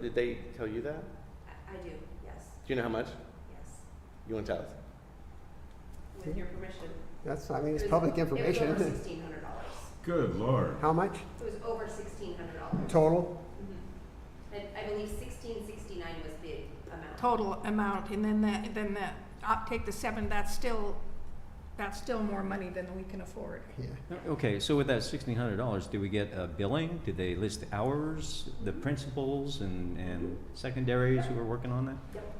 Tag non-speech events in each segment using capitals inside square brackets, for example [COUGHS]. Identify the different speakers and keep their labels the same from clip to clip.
Speaker 1: Did they tell you that?
Speaker 2: I I do, yes,
Speaker 1: Do you know how much?
Speaker 2: yes,
Speaker 1: You want to tell us?
Speaker 2: with your permission.
Speaker 3: That's, I mean,
Speaker 2: It
Speaker 3: it's
Speaker 2: was-
Speaker 3: public
Speaker 2: It was over
Speaker 3: information.
Speaker 2: sixteen hundred dollars.
Speaker 4: Good lord.
Speaker 3: How much
Speaker 2: It was over sixteen hundred dollars. Mm-hmm.
Speaker 3: total?
Speaker 2: And I believe sixteen sixty-nine was the amount.
Speaker 5: total amount, and then that, then that, I'll take the seven, that's still, that's still more money than we can afford.
Speaker 3: Yeah.
Speaker 6: Okay, so with that sixteen hundred dollars, do we get a billing? Did they list the hours, the principals and, and secondaries who are working on that?
Speaker 2: Yep.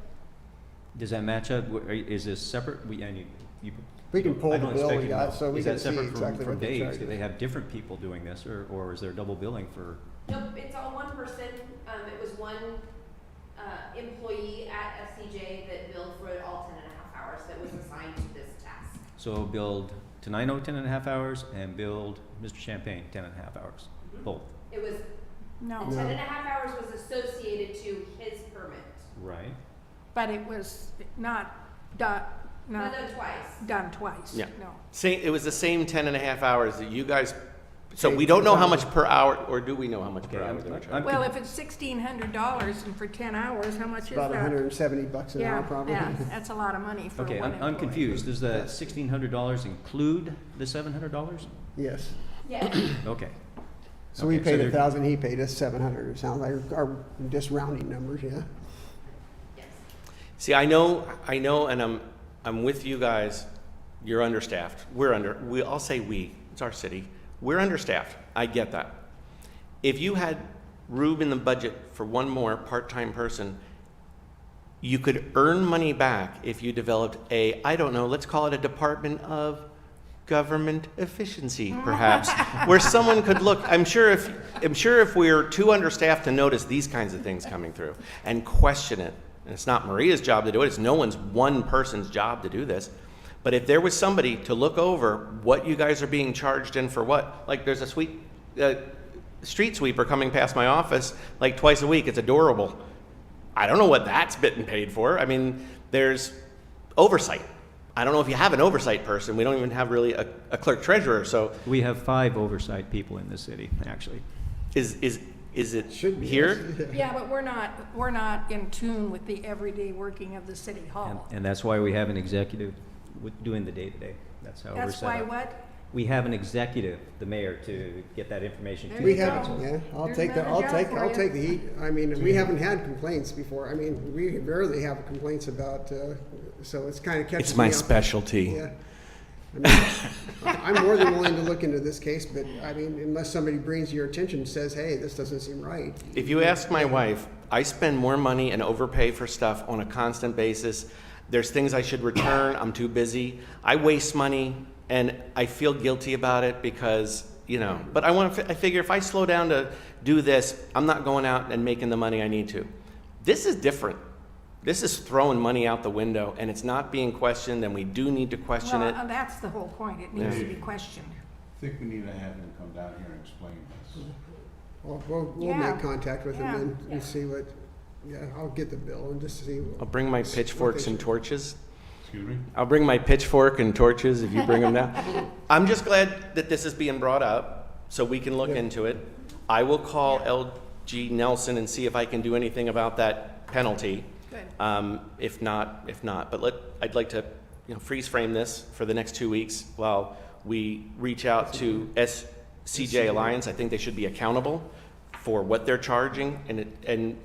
Speaker 6: Does that match up? Wh- are- Is this separate? We, and you, you.
Speaker 3: We can
Speaker 6: you-
Speaker 3: pull
Speaker 6: I
Speaker 3: the
Speaker 6: don't
Speaker 3: bill we
Speaker 6: expect you to
Speaker 3: got
Speaker 6: know.
Speaker 3: so we
Speaker 6: Is
Speaker 3: can
Speaker 6: that
Speaker 3: see
Speaker 6: separate from-
Speaker 3: exactly
Speaker 6: from
Speaker 3: what the
Speaker 6: days?
Speaker 3: charge
Speaker 6: Do
Speaker 3: is.
Speaker 6: they have different people doing this or, or is there double billing for?
Speaker 2: Nope, it's all one person. Um, it was one, uh, employee at FCJ that billed for it all ten and a half hours that was assigned to this task.
Speaker 6: So build Tenino ten and a half hours and build Mr. Champagne ten and a half hours,
Speaker 5: Mm-hmm.
Speaker 6: both.
Speaker 2: It was,
Speaker 3: Oh.
Speaker 2: the
Speaker 5: No,
Speaker 2: ten and a half hours was associated to his permit.
Speaker 6: Right.
Speaker 5: but it was not done,
Speaker 2: Not
Speaker 5: not
Speaker 2: done twice.
Speaker 5: [COUGHS] done twice,
Speaker 1: Yeah.
Speaker 5: no.
Speaker 1: Same, it was the same 10 and a half hours that you guys, so we don't know how much per hour, or do we know how much per hour
Speaker 6: Okay, I'm-
Speaker 1: they were
Speaker 6: I'm-
Speaker 1: charging?
Speaker 5: Well, if it's sixteen hundred dollars and for ten hours, how much is that?
Speaker 3: About hundred and seventy bucks an hour
Speaker 5: Yeah,
Speaker 3: probably.
Speaker 5: yeah,
Speaker 3: [LAUGHS]
Speaker 5: that's a lot of money for one
Speaker 6: Okay,
Speaker 5: employee.
Speaker 6: I'm, I'm confused. Does the sixteen hundred dollars include the seven hundred dollars?
Speaker 3: Yes.
Speaker 2: Yes,
Speaker 6: Okay.
Speaker 3: So we
Speaker 6: Okay, so
Speaker 3: paid a
Speaker 6: they're-
Speaker 3: thousand, he paid us seven hundred, it sounds like, or just rounding numbers, yeah.
Speaker 2: yes.
Speaker 1: See, I know, I know, and I'm, I'm with you guys. You're understaffed. We're under, we, I'll say we, it's our city. We're understaffed. I get that. If you had room in the budget for one more part-time person, you could earn money back if you developed a, I don't know, let's call it a Department of Government Efficiency, perhaps, where someone could look, I'm sure if, I'm sure if we're too understaffed to notice these kinds of things coming through and question it, and it's not Maria's job to do it, it's no one's one person's job to do this. But if there was somebody to look over what you guys are being charged in for what, like there's a sweet, uh, street sweeper coming past my office like twice a week, it's adorable. I don't know what that's been paid for. I mean, there's oversight. I don't know if you have an oversight person. We don't even have really a, a clerk treasurer. So
Speaker 6: We have five oversight people in this city, actually.
Speaker 1: is is is it
Speaker 3: Should be,
Speaker 1: here?
Speaker 5: Yeah, but we're not, we're not in tune with the everyday working of the city
Speaker 6: And,
Speaker 5: hall.
Speaker 6: and that's why we have an executive with, doing the day-to-day. That's how we're
Speaker 5: That's
Speaker 6: set
Speaker 5: why
Speaker 6: up.
Speaker 5: what?
Speaker 6: We have an executive, the mayor, to get that information to.
Speaker 5: There
Speaker 6: the
Speaker 3: We
Speaker 5: you go.
Speaker 3: haven't,
Speaker 6: council.
Speaker 3: yeah, I'll
Speaker 5: There's
Speaker 3: take the, I'll
Speaker 5: another job
Speaker 3: take,
Speaker 5: for
Speaker 3: I'll
Speaker 5: you.
Speaker 3: take the heat. I mean, we haven't had complaints before, I mean, we rarely have complaints about, uh, so it's kind of catching me off.
Speaker 1: specialty.
Speaker 3: Yeah. I mean, I'm more than willing to look into this case, but I mean, unless somebody brings your attention and says, hey, this doesn't seem right.
Speaker 1: If you ask my wife, I spend more money and overpay for stuff on a constant basis. There's things I should return. I'm too busy. I waste money and I feel guilty about it because, you know, but I want to, I figure if I slow down to do this, I'm not going out and making the money I need to. This is different. This is throwing money out the window and it's not being questioned and we do need to question
Speaker 5: Well,
Speaker 1: it.
Speaker 5: uh, that's the whole point, it needs
Speaker 4: Yeah.
Speaker 5: to be questioned.
Speaker 4: I think we need to have him come down here and explain this.
Speaker 3: We'll, we'll, we'll
Speaker 5: Yeah.
Speaker 3: make contact with them
Speaker 5: Yeah.
Speaker 3: and,
Speaker 2: Yeah.
Speaker 3: and see what, yeah, I'll get the bill and just see.
Speaker 1: I'll bring my pitchforks and torches.
Speaker 4: Excuse me?
Speaker 1: I'll bring my pitchfork and torches if you bring them down. [LAUGHS] I'm just glad that this is being brought up so we can look
Speaker 3: Yeah.
Speaker 1: into it. I will call LG Nelson and see if I can do anything about that penalty.
Speaker 5: Good.
Speaker 1: Um, if not, if not, but let, I'd like to, you know, freeze frame this for the next two weeks while we reach out to SCJ Alliance. I think they should be accountable for what they're charging and it, and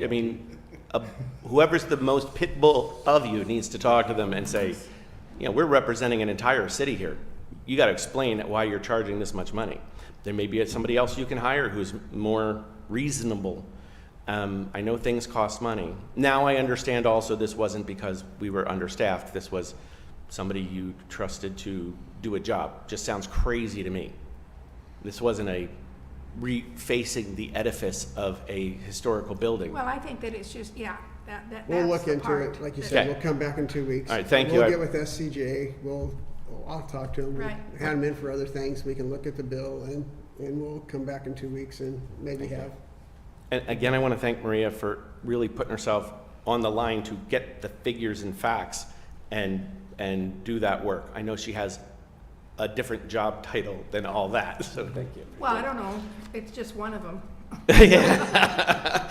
Speaker 1: I mean, a- whoever's the most pit bull of you needs to talk to them and say, you know, we're representing an entire city here. You got to explain why you're charging this much money. There may be somebody else you can hire who's more reasonable. Um, I know things cost money. Now I understand also this wasn't because we were understaffed. This was somebody you trusted to do a job. Just sounds crazy to me. This wasn't a refacing the edifice of a historical building.
Speaker 5: Well, I think that it's just, yeah, that, that, that's
Speaker 3: We'll look
Speaker 5: the
Speaker 3: into
Speaker 5: part
Speaker 3: it, like you
Speaker 5: that-
Speaker 3: said,
Speaker 1: Okay.
Speaker 3: we'll come back in two weeks.
Speaker 1: All right, thank you. I-
Speaker 3: We'll get with SCJ, we'll, well, I'll talk to them.
Speaker 5: Right.
Speaker 3: Hand them in for other things, we can look at the bill and, and we'll come back in two weeks and maybe have.
Speaker 1: And again, I want to thank Maria for really putting herself on the line to get the figures and facts and, and do that work. I know she has a different job title than all that, so thank you.
Speaker 5: Well, I don't know, it's just one of them,
Speaker 1: [LAUGHS] Yeah.